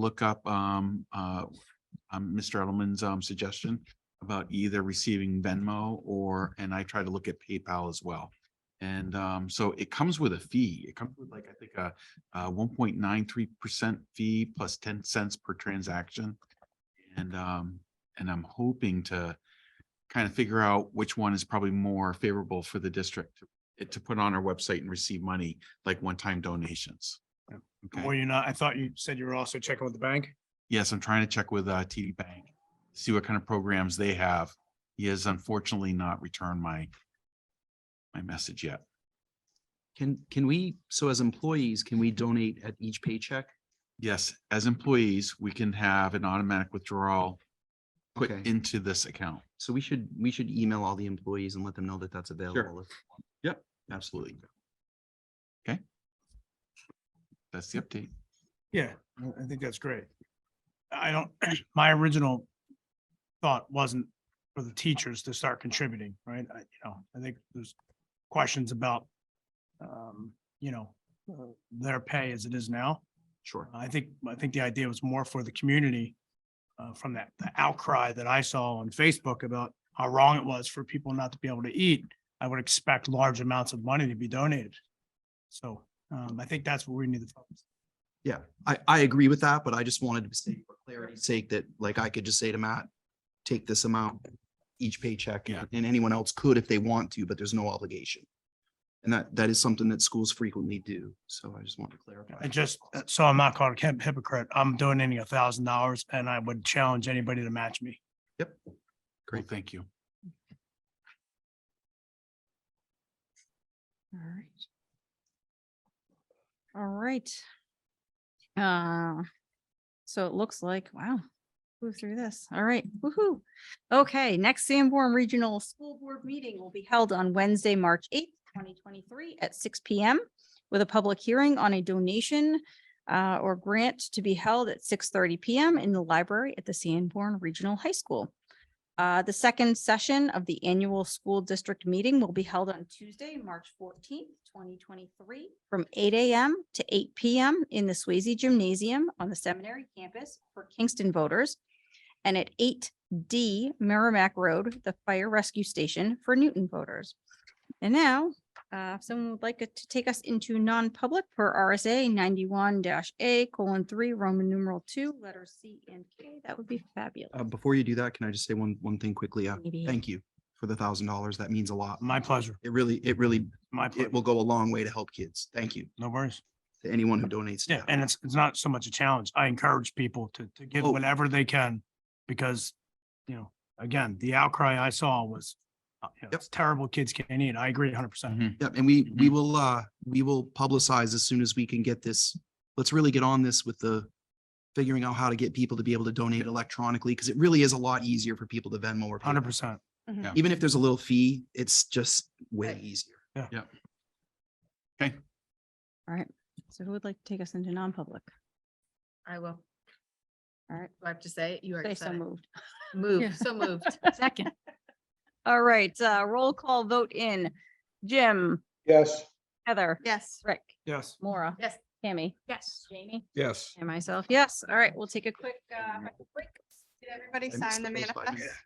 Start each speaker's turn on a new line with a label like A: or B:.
A: look up um uh um Mr. Edelman's um suggestion about either receiving Venmo or, and I try to look at PayPal as well. And um so it comes with a fee. It comes with like, I think, a uh one point nine three percent fee plus ten cents per transaction. And um, and I'm hoping to kind of figure out which one is probably more favorable for the district to- to put on our website and receive money like one-time donations.
B: Yeah.
A: Okay.
B: Or you're not, I thought you said you were also checking with the bank?
A: Yes, I'm trying to check with uh TD Bank, see what kind of programs they have. He has unfortunately not returned my my message yet.
C: Can, can we, so as employees, can we donate at each paycheck?
A: Yes, as employees, we can have an automatic withdrawal put
C: Okay.
A: into this account.
C: So we should, we should email all the employees and let them know that that's available.
A: Absolutely. Okay. That's the update.
B: Yeah, I- I think that's great. I don't, my original thought wasn't for the teachers to start contributing, right? I, you know, I think there's questions about, um, you know, uh, their pay as it is now.
C: Sure.
B: I think, I think the idea was more for the community uh, from that the outcry that I saw on Facebook about how wrong it was for people not to be able to eat. I would expect large amounts of money to be donated. So um, I think that's what we need to focus.
C: Yeah, I, I agree with that, but I just wanted to say for clarity's sake that like I could just say to Matt, take this amount each paycheck.
A: Yeah.
C: And anyone else could if they want to, but there's no obligation. And that, that is something that schools frequently do. So I just want to clarify.
B: I just, uh, so I'm not called a hip- hypocrite. I'm donating a thousand dollars and I would challenge anybody to match me.
A: Great,
C: Great.
A: thank you.
D: All right. All right. Uh, so it looks like, wow, move through this. All right, woohoo. Okay, next Sanborn Regional School Board meeting will be held on Wednesday, March eighth, twenty twenty-three at six P M with a public hearing on a donation uh, or grant to be held at six thirty P M in the library at the Sanborn Regional High School. Uh, the second session of the annual school district meeting will be held on Tuesday, March fourteenth, twenty twenty-three, from eight AM to eight PM in the Swayze Gymnasium on the seminary campus for Kingston voters and at eight D Merrimack Road, the fire rescue station for Newton voters. And now, uh, if someone would like it to take us into non-public per RSA ninety-one A colon three, Roman numeral two, letters C and K, that would be fabulous.
C: Uh, before you do that, can I just say one, one thing quickly? Uh,
D: Maybe.
C: thank you for the thousand dollars. That means a lot.
B: My pleasure,
C: It really, it really,
B: my
C: it
B: pleasure.
C: will go a long way to help kids. Thank you
B: No worries.
C: to anyone who donates. to
B: Yeah,
C: that.
B: and it's, it's not so much a challenge. I encourage people to, to give
C: Oh.
B: whatever they can because, you know, again, the outcry I saw was uh, you know,
C: Yep.
B: it's terrible kids can't eat. I agree hundred percent.
C: Yep, and we,
B: Mm-hmm.
C: we will, uh, we will publicize as soon as we can get this. Let's really get on this with the figuring out how to get people to be able to donate electronically, because it really is a lot easier for people to Venmo or.
B: Hundred
C: PayPal.
B: percent.
A: Yeah.
C: Even if there's a little fee, it's just way
D: Right.
C: easier.
D: So who would like to take us into non-public?
E: I will.
D: All right.
E: Do I have to say it? You
D: Say
E: already
D: so
E: said it.
D: moved. Yeah.
E: Moved, so moved. Second.
D: All right, uh, roll call vote in. Jim,
F: Yes.
D: Heather,
E: Yes.
D: Rick,
B: Yes.
D: Maura,
E: Yes.
D: Tammy,
E: Yes.
D: Jamie,
F: Yes.
D: and myself. Yes. All right, we'll take a quick, uh, break.
G: Did everybody
C: I missed
G: sign the
C: those by-
G: manifest?